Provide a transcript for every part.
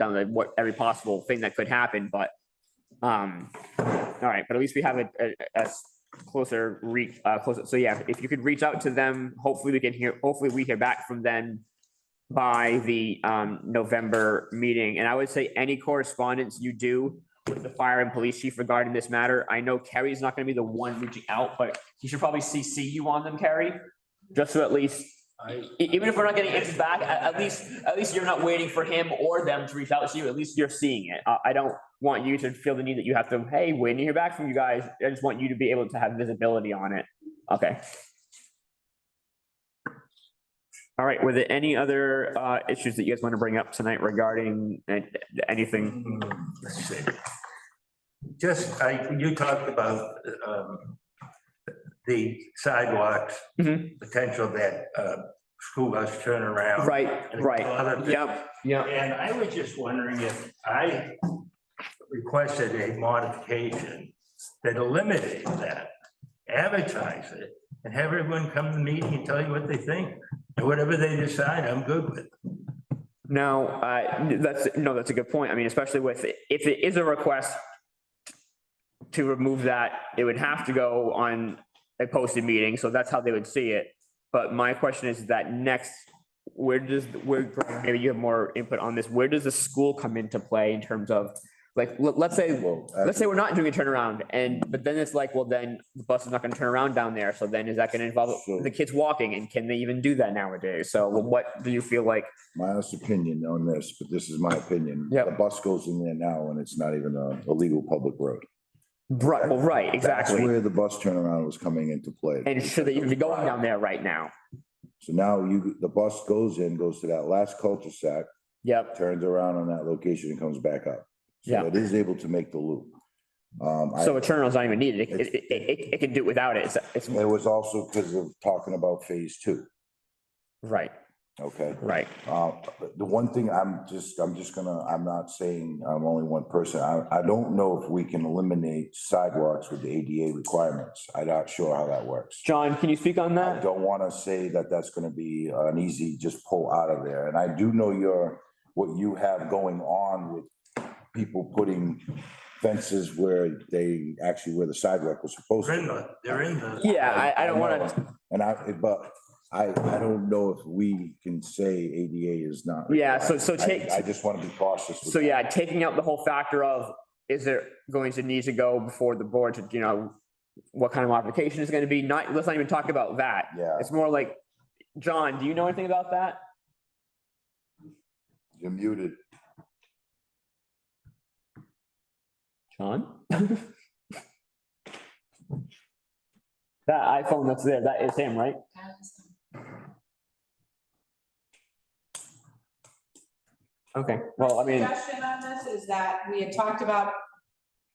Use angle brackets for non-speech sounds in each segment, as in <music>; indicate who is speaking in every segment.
Speaker 1: down to what every possible thing that could happen, but, um, all right, but at least we have a, a, a s- closer reach, uh, closer. So yeah, if you could reach out to them, hopefully we can hear, hopefully we hear back from them by the, um, November meeting. And I would say any correspondence you do with the fire and police chief regarding this matter, I know Kerry's not gonna be the one reaching out, but he should probably CC you on them, Kerry. Just so at least,
Speaker 2: I,
Speaker 1: E- Even if we're not getting answers back, at, at least, at least you're not waiting for him or them to reach out to you. At least you're seeing it. I, I don't want you to feel the need that you have to, hey, when you hear back from you guys, I just want you to be able to have visibility on it. Okay. All right, were there any other, uh, issues that you guys want to bring up tonight regarding uh, anything?
Speaker 2: let's see. Mm. Just, I, you talked about, um, the sidewalks,
Speaker 1: Mhm.
Speaker 2: potential that, uh, school bus turnaround.
Speaker 1: Right,
Speaker 2: and
Speaker 1: right.
Speaker 2: other thi-
Speaker 1: Yep, yep.
Speaker 2: And I was just wondering if I requested a modification that eliminates that, advertise it, and have everyone come to the meeting and tell you what they think. And whatever they decide, I'm good with.
Speaker 1: No, uh, that's, no, that's a good point. I mean, especially with, if it is a request to remove that, it would have to go on a posted meeting, so that's how they would see it. But my question is that next, where does, where, Greg, maybe you have more input on this, where does the school come into play in terms of, like, let- let's say, let's say we're not doing a turnaround and, but then it's like, well, then the bus is not gonna turn around down there, so then is that gonna involve
Speaker 3: Sure.
Speaker 1: the kids walking and can they even do that nowadays? So what do you feel like
Speaker 3: My honest opinion on this, but this is my opinion.
Speaker 1: Yep.
Speaker 3: The bus goes in there now and it's not even a, a legal public road.
Speaker 1: Right, well, right,
Speaker 3: That's
Speaker 1: exactly.
Speaker 3: where the bus turnaround was coming into play.
Speaker 1: And should they even be going down there right now?
Speaker 3: So now you, the bus goes in, goes to that last cul-de-sac,
Speaker 1: Yep,
Speaker 3: turns around on that location and comes back up.
Speaker 1: Yeah.
Speaker 3: So it is able to make the loop. Um, I,
Speaker 1: so a turnaround's not even needed. It, it, it- it, it can do it without it. It's, it's,
Speaker 3: it was also because of talking about phase two,
Speaker 1: right,
Speaker 3: okay?
Speaker 1: right.
Speaker 3: Uh, the one thing I'm just, I'm just gonna, I'm not saying I'm only one person. I, I don't know if we can eliminate sidewalks with the ADA requirements. I'm not sure how that works.
Speaker 1: John, can you speak on
Speaker 3: I
Speaker 1: that?
Speaker 3: don't want to say that that's going to be an easy just pull out of there. And I do know your, what you have going on with people putting fences where they, actually where the sidewalk was supposed
Speaker 2: They're
Speaker 3: to.
Speaker 2: in the, they're in the.
Speaker 1: Yeah, I, I don't wanna,
Speaker 3: know. And I, but I, I don't know if we can say ADA is not.
Speaker 1: Yeah, so- so
Speaker 3: required.
Speaker 1: take-
Speaker 3: I I just want to be cautious. with
Speaker 1: so
Speaker 3: that.
Speaker 1: yeah, taking out the whole factor of, is there going to need to go before the board to, you know, what kind of modification is gonna be? Not, let's not even talk about that.
Speaker 3: Yeah,
Speaker 1: It's more like, John, do you know anything about that?
Speaker 3: you're muted.
Speaker 1: <laughs> John? That iPhone that's there, that is him, right? Okay, well, I mean,
Speaker 4: Suggestion on this is that we had talked about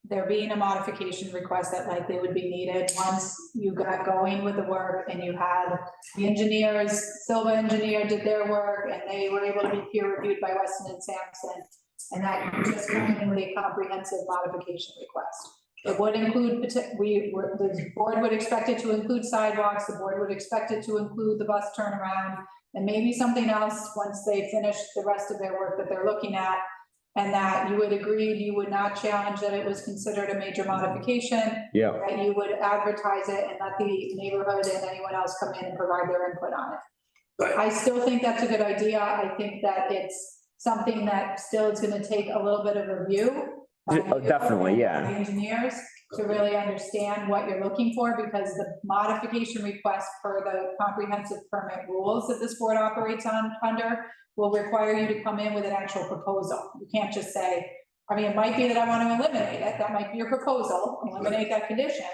Speaker 4: there being a modification request that likely would be needed once you got going with the work and you had the engineers, Silva engineer did their work and they were able to be peer reviewed by Weston and Sampson. And that you just come in with a comprehensive modification request. It would include, pota- we, were- the board would expect it to include sidewalks, the board would expect it to include the bus turnaround. And maybe something else, once they finish the rest of their work that they're looking at. And that you would agree, you would not challenge that it was considered a major modification,
Speaker 3: Yeah.
Speaker 4: that you would advertise it and let the neighborhood and anyone else come in and provide their input on it.
Speaker 2: Right.
Speaker 4: I still think that's a good idea. I think that it's something that still is gonna take a little bit of review. by
Speaker 1: Oh, definitely, yeah.
Speaker 4: the Engineers to really understand what you're looking for, because the modification request per the comprehensive permit rules that this board operates on, under, will require you to come in with an actual proposal. You can't just say, I mean, it might be that I want to eliminate it, that might be your proposal, eliminate that condition.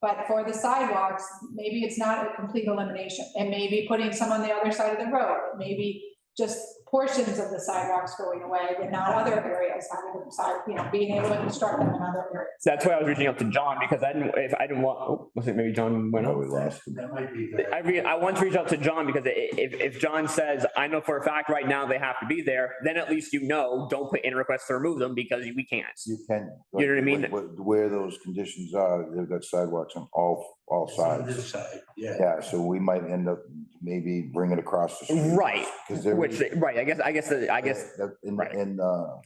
Speaker 4: But for the sidewalks, maybe it's not a complete elimination, and maybe putting some on the other side of the road, maybe just portions of the sidewalks going away, but not other areas, having them side, you know, being able to construct them in other areas.
Speaker 1: so that's why I was reaching out to John because I didn't, if I didn't want, oh, was it maybe John went
Speaker 3: No,
Speaker 1: over?
Speaker 3: we lost him.
Speaker 2: That might be. the-
Speaker 1: I re, I want to reach out to John because i- if, if John says, I know for a fact right now they have to be there, then at least you know, don't put in requests to remove them because we can't.
Speaker 3: You can.
Speaker 1: You know what I mean?
Speaker 3: Where- Where those conditions are, they've got sidewalks on all, all sides.
Speaker 2: This side, yeah.
Speaker 3: Yeah, so we might end up maybe bringing it across the street.
Speaker 1: Right,
Speaker 3: Because there.
Speaker 1: which, right, I guess, I guess, that- I guess,
Speaker 3: that- In,
Speaker 1: right.
Speaker 3: in, uh,